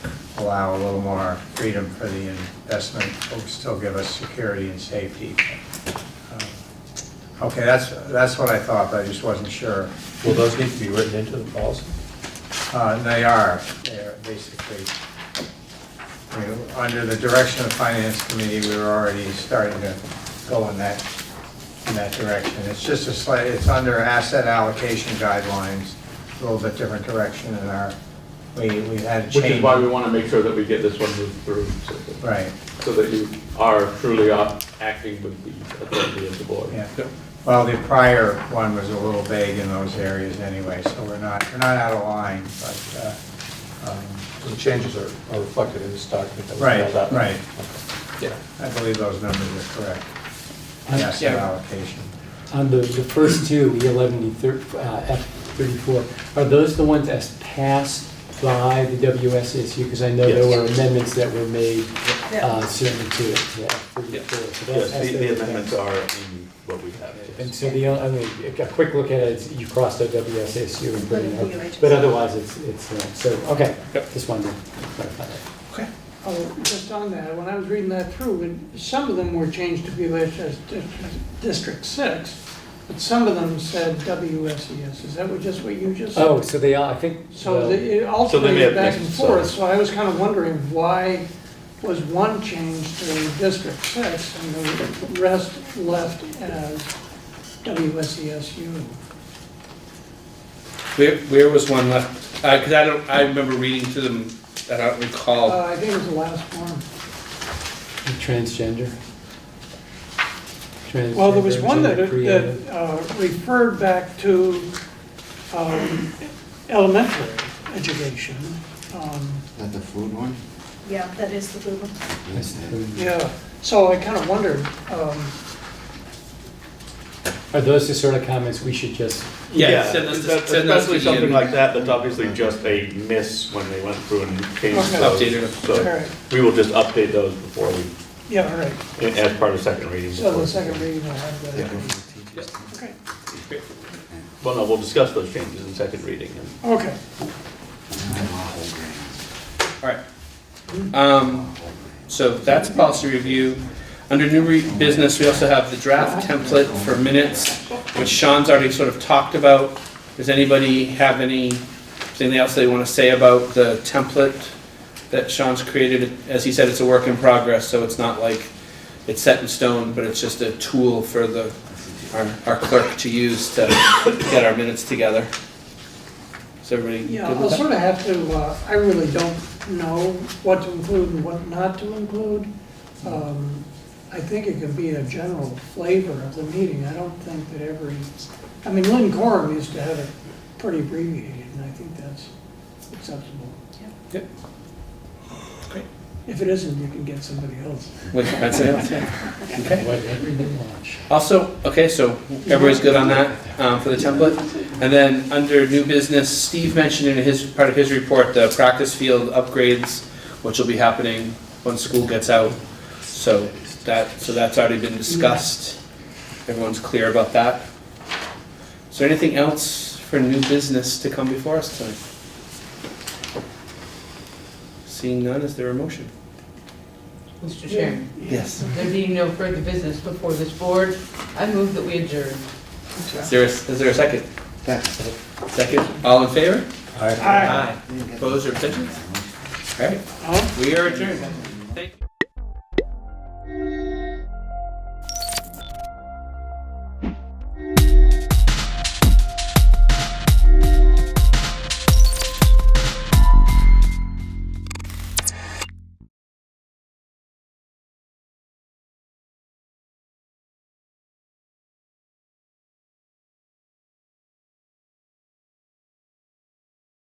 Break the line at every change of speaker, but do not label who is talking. allow a little more freedom for the investment, but still give us security and safety. Um, Okay, that's, that's what I thought, but I just wasn't sure.
Will those need to be written into the policy?
Uh, and They are, they're basically, I mean, under the direction of the Finance Committee, we were already starting to go in that, in that direction. It's just a slight, it's under asset allocation guidelines, a little bit different direction in our, we, we had a change.
Which is why we want to make sure that we get this one moved through, so that-
Right,
so that you are truly uh, acting with the authority of the board.
yeah. Well, the prior one was a little vague in those areas anyway, so we're not, we're not out of line, but, uh, um,
The changes are are reflected in this document that was
Right,
mailed out.
right.
Okay. Yeah.
I believe those numbers are correct.
Um,
Asset allocation.
On the, the first two, E eleven, E thir, uh, F thirty-four, are those the ones as passed by the WSSU? Because I know there
Yes.
were amendments that were made,
Yeah.
uh, certainly to it, to F thirty-four. So that's-
Yes, the- the
that's-
amendments are in what we have. yes.
And so the, only- I mean, a a quick look at it, it's- you crossed out WSSU and put it in,
Including PUHs.
but otherwise it's, it's, uh, so, okay, just wanted to clarify that.
Oh, just on that, when I was reading that through, and some of them were changed to WHS Dis- District Six, but some of them said WSES, is that what, just what you just said?
Oh, so they are, I think. uh,
So
well,
the- it
So they may have
alternated back and
mixed,
forth,
so-
so I was kind of wondering why was one changed to District Six and the rest left as E WSESU?
Where, where was one left? Uh 'cause cause I don't, I remember reading to them, that I don't
Uh,
recall.
I think it was the last one.
Transgender.
Well, there was one that,
Transgender, gender
that uh, referred back to um, elementary education. Um,
That the food one?
Yeah, that is the blue one.
creative.
Yeah, so I kind of wondered, um,
Are those the sort of comments we should just,
Yeah, send us,
that's-
send us
Especially
to Ian.
something like that, that's obviously just a miss when they went through and changed
Okay.
those.
Updated it.
all
So
right,
we will just update those before
yeah, all right.
we, as part of second reading.
So the
before-
second reading will have
April
that.
fourteenth.
Yep.
Okay,
Well, no, we'll discuss those changes in second reading and
okay.
I'm awful grand.
Alright. Um, so that's policy review. Under new re- business, we also have the draft template for minutes, which Sean's already sort of talked about. Does anybody have anything else they wanna say about the template that Sean's created? As he said, it's a work in progress, so it's not like it's set in stone, but it's just a tool for the, our, our clerk to use to get our minutes together. Is everybody
Yeah,
good
I'll
with that?
sort of have to, uh, I really don't know what to include and what not to include. Um, I think it can be a general flavor of the meeting. I don't think that every, I mean, Lynn Corum used to have it pretty abbreviated, and I think that's acceptable.
Yeah.
Great. If it isn't, you can get somebody else.
Wait, that's it? Okay.
whatever you want?
Also, okay, so everybody's good on that um, for the template? And then, under new business, Steve mentioned in his, part of his report, the practice field upgrades, which will be happening when school gets out. So that, so that's already been discussed. Everyone's clear about that. Is there anything else for new business to come before us tonight? Seeing none, is there a motion?
Mr. Chairman,
Yes.
there being no further business before this board, I move that we adjourn.
Is there a- is there a second?
That's it.
Second? All in favor?
All right.
Aye. Opposed or abstentions? All right, we are adjourned. Thank you.